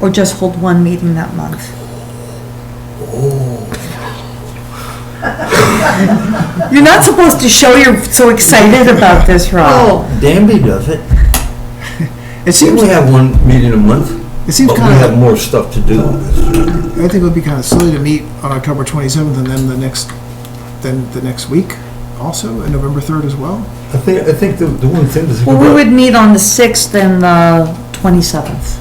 or just hold one meeting that month. Oh. You're not supposed to show you're so excited about this, Oh. Oh. Rob. Danby does it. Didn't It seems, we have one meeting a month? it seems But we kind have of, more stuff to do. I think it would be kind of silly to meet on October 27th and then the next, then the next week also, and November 3rd as well. I think, I think the, the one thing to think Well, we about, would meet on the 6th and the 27th.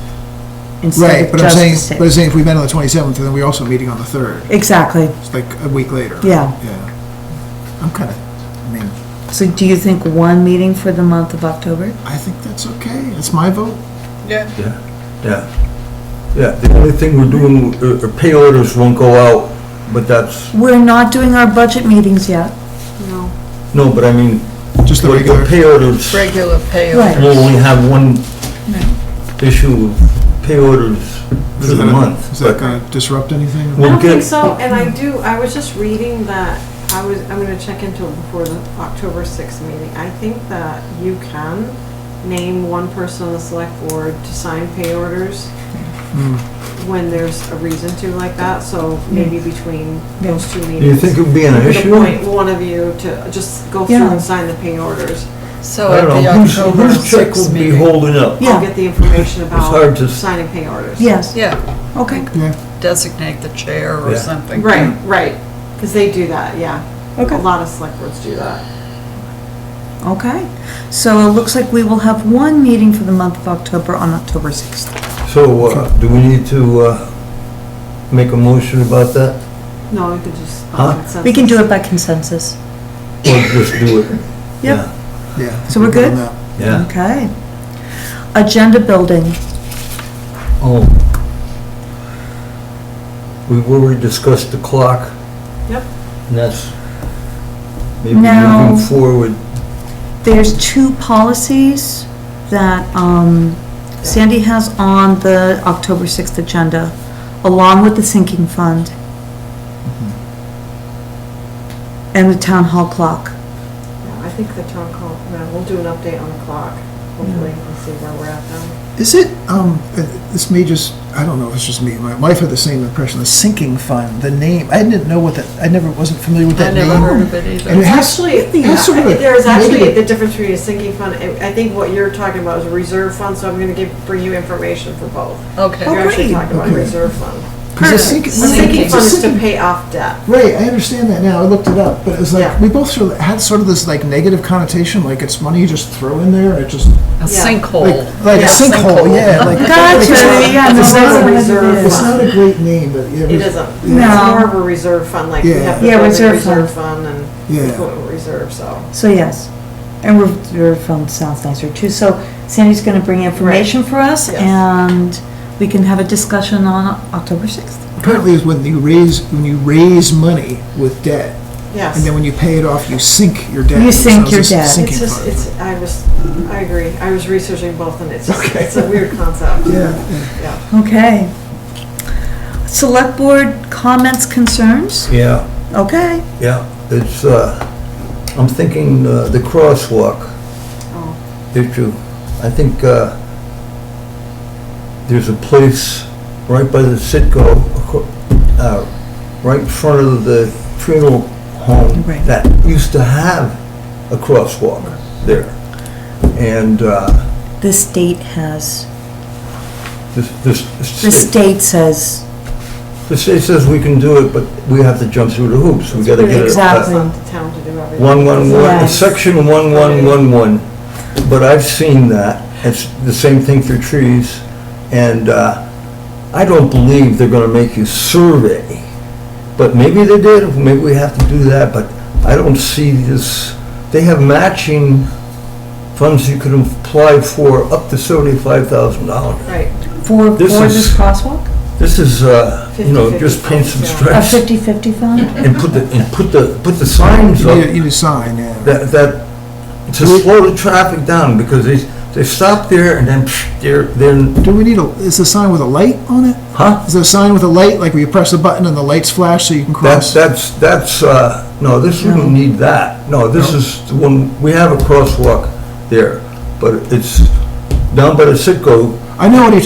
instead Right, of but I'm just the saying, but I'm 6th. saying if we met on the 27th, then we're also meeting on the 3rd. Exactly. It's like a week later. Yeah. Yeah. I'm kind of, I mean, So do you think one meeting for the month of October? I think that's okay. It's my vote. yeah. Yeah, the only thing we're doing, uh, uh, pay orders won't go out, but that's, We're not doing our budget meetings yet. no, but I mean, Just the with the regular. pay orders, regular pay. Right. we'll only have one issue of pay orders for Is the that- month. Is but that going to disrupt anything? We'll I don't get- think so, and I do, I was just reading that, I was, I'm gonna check into it before the October sixth meeting. I think that you can name one person on the select board to sign pay orders Hmm. when there's a reason to like that, so maybe between those two meetings. Hmm. Do you think it would be an You could issue? appoint one of you to just go through Yeah. and sign the pay orders. So I at don't the know, who's, October whose check 6th would be meeting. holding up? Yeah. I'll get the information hard about to s- signing pay orders. Yes, Yeah, okay, Yeah, designate the chair or Yeah. something. Right, right, because they do that, yeah. Okay. A lot of select boards do that. okay. So it looks like we will have one meeting for the month of October on October 6th. So, uh, do we need to, uh, make a motion about that? No, we could just. Huh? We can do it by consensus. Or just do it? Yep. yeah. So we're good? on that. Yeah. Okay. Agenda building. Oh. We already discussed the clock. Yep. And that's maybe Now- moving forward. There's two policies that um, Sandy has on the October 6th agenda, along with the sinking fund and the town hall clock. Yeah, I think the town call, yeah, we'll do an update on the clock, hopefully, and see where we're at then. Is it, um, uh, this may just, I don't know if it's just me, my wife had the same impression, the sinking fund, the name, I didn't know what that, I never, wasn't familiar with I that name. never heard of it And it either. has- it has sort of a There's actually negative- the difference between a sinking fund, I I think what you're talking about is a reserve fund, so I'm gonna give, bring you information for both. Okay, You're actually great. talking about a Oh, Okay. reserve fund. 'cause the sinking- A sinking fund is to sinking- pay off debt. Right, I understand that now, I looked it up, but it was Yeah. like, we both sort of had sort of this like negative connotation, like it's money you just throw in there, it just, a Yeah. like, sinkhole. like a Yeah, sinkhole, sinkhole. yeah, like. Gotcha, it's not- yeah, it's no, not that's a- what it is. It's not a great name, but. It isn't. No. It's more of a reserve fund, like we have the Yeah. Yeah, building reserve reserve fund and Yeah. equipment reserve, so. So yes, and we're, we're from South nicer too. So Sandy's going to bring information for us Yes. and we can have a discussion on October 6th. Apparently is when you raise, when you raise money with debt, Yes. And then when you pay it off, you sink your debt. You So sink it's your just debt. Sinking It's just, fund. it's, I was, I agree, I was researching both and it's, just- Okay. it's a weird concept. Yeah, Yeah. Okay. Select board comments, concerns? Yeah, Okay. yeah. It's, uh, I'm thinking, uh, the crosswalk Oh, issue. I think, uh, there's a place right by the Citgo, acro- uh, right in front of the funeral home Right. that used to have a crosswalk there. And, uh, The state has, This, this, the state says, the state says we can do it, but we have to jump through the hoops. We gotta get it. It's Exactly. uh, not the town to do everything. One, one, one, Yes. section one, one, one, one. But I've seen that. It's the same thing for trees. And, uh, I don't believe they're gonna make you survey. But maybe they did, maybe we have to do that, but I don't see this, they have matching funds you can apply for up to seventy-five thousand dollars. Right, for, for This this is- crosswalk? This is, uh, you know, 50-50 just paint some funds, A yeah. stripes fifty-fifty fund? and put the, and put the, put the signs you need, a- up you need a sign, yeah. that, that, to slow the traffic down because they, they stop there and then psh, they're, they're, Do we need a, is the sign with a light on it? huh? Is there a sign with a light, like where you press the button and the lights flash so you can That's, cross? that's, that's, uh, no, this, we don't need that. No, this is, the one we have a crosswalk there, but it's down by the Citgo, I know what you're